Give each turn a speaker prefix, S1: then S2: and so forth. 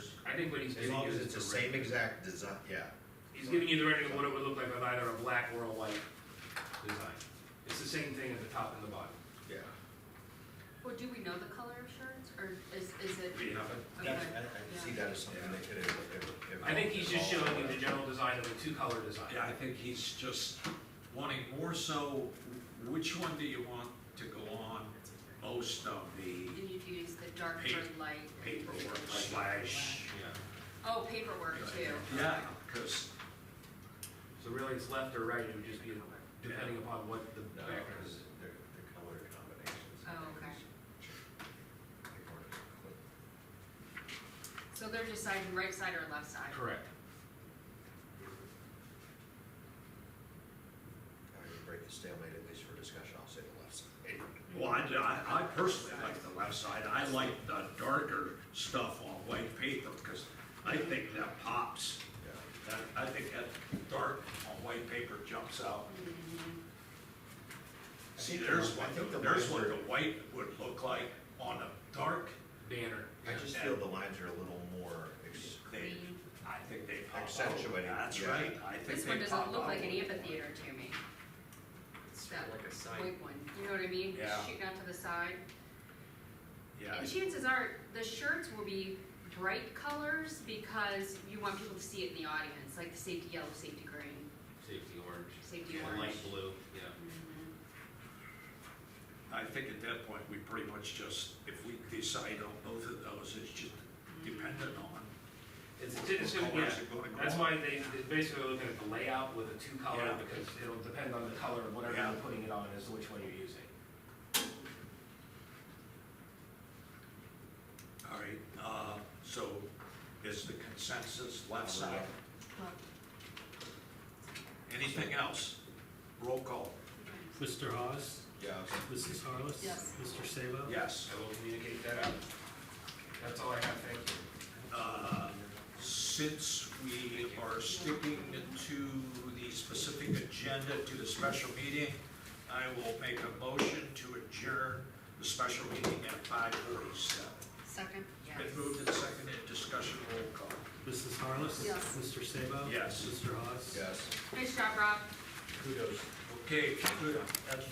S1: he's
S2: As
S1: giving
S2: long
S1: you
S2: as
S1: the
S2: it's the
S1: direct-
S2: same exact design, yeah.
S1: He's giving you the rendering of what it would look like with either a black or a white design. It's the same thing at the top and the bottom.
S2: Yeah.
S3: Or do we know the color of shirts, or is, is it?
S1: We have it.
S3: okay.
S2: That's, I, I can see that as something that could. ev- ev- evolve-
S1: I think he's just
S2: evolve.
S1: showing you the general design of a two-color design.
S4: Yeah, I think he's just wanting more so, which one do you want to go on most of the
S3: And you'd use the dark
S4: Pa-
S3: or light?
S4: paperwork slash?
S3: Oh, paperwork too.
S4: Yeah, because
S1: So really, it's left or right, it would just be depending upon what the
S2: No,
S1: background
S2: because
S1: is.
S2: they're, they're color combinations.
S3: Oh, okay.
S2: Like, or-
S3: So they're deciding right side or left side?
S1: Correct.
S2: I would break the stalemate, at least for discussion, I'll say the left side.
S4: Well, I, I I personally like the left side, I like the darker stuff on white paper, because I think that pops.
S2: Yeah.
S4: That, I think that dark on white paper jumps out. See, there's
S2: I
S4: what,
S2: think the
S4: there's
S2: lines
S4: what
S2: are-
S4: the white would look like on a dark,
S1: Banner.
S2: I just feel the lines are a little more ex-
S4: they,
S3: Green.
S4: I think they pop out.
S2: Accentuating,
S4: That's
S2: yeah.
S4: right, I think
S3: This
S4: they
S3: one
S4: pop
S3: doesn't look
S4: out
S3: like an
S4: a little more.
S3: amphitheater to me,
S5: It's sort of like a side,
S3: white one, you know what I mean?
S4: Yeah.
S3: Shooting out to the side.
S4: Yeah,
S3: And chances are, the shirts will be bright colors because you want people to see it in the audience, like the safety yellow, safety green,
S5: safety orange,
S3: safety
S5: yeah,
S3: orange.
S5: light blue, yeah.
S3: Mhm.
S4: I think at that point, we pretty much just, if we decide on both of those, it's just dependent on.
S1: It's, it's, gonna- yeah,
S4: Colors are gonna go
S1: that's
S4: on.
S1: why they, they basically are looking at the layout with a two-color,
S4: Yeah.
S1: because it'll depend on the color of whatever
S4: Yeah.
S1: you're putting it on, as to which one you're using.
S4: All right, uh, so is the consensus left side?
S3: Well,
S4: Anything else? Roll call,
S3: okay.
S6: Mr. Hawes?
S2: Yeah, okay.
S6: Mrs. Harless?
S3: Yes.
S6: Mr. Sabo?
S4: yes.
S1: I will communicate that out. That's all I have, thank you.
S4: Uh, Since we are sticking to the specific agenda to the special meeting, I will make a motion to adjourn the special meeting at five forty-seven.
S3: Second?
S4: Been moved and seconded, discussion, roll call.
S6: Mrs. Harless?
S3: Yes.
S6: Mr. Sabo?
S4: Yes.
S6: Mr. Hawes?
S2: Yes.
S3: Nice job, Rob.
S2: Kudos.
S4: Okay, good. That's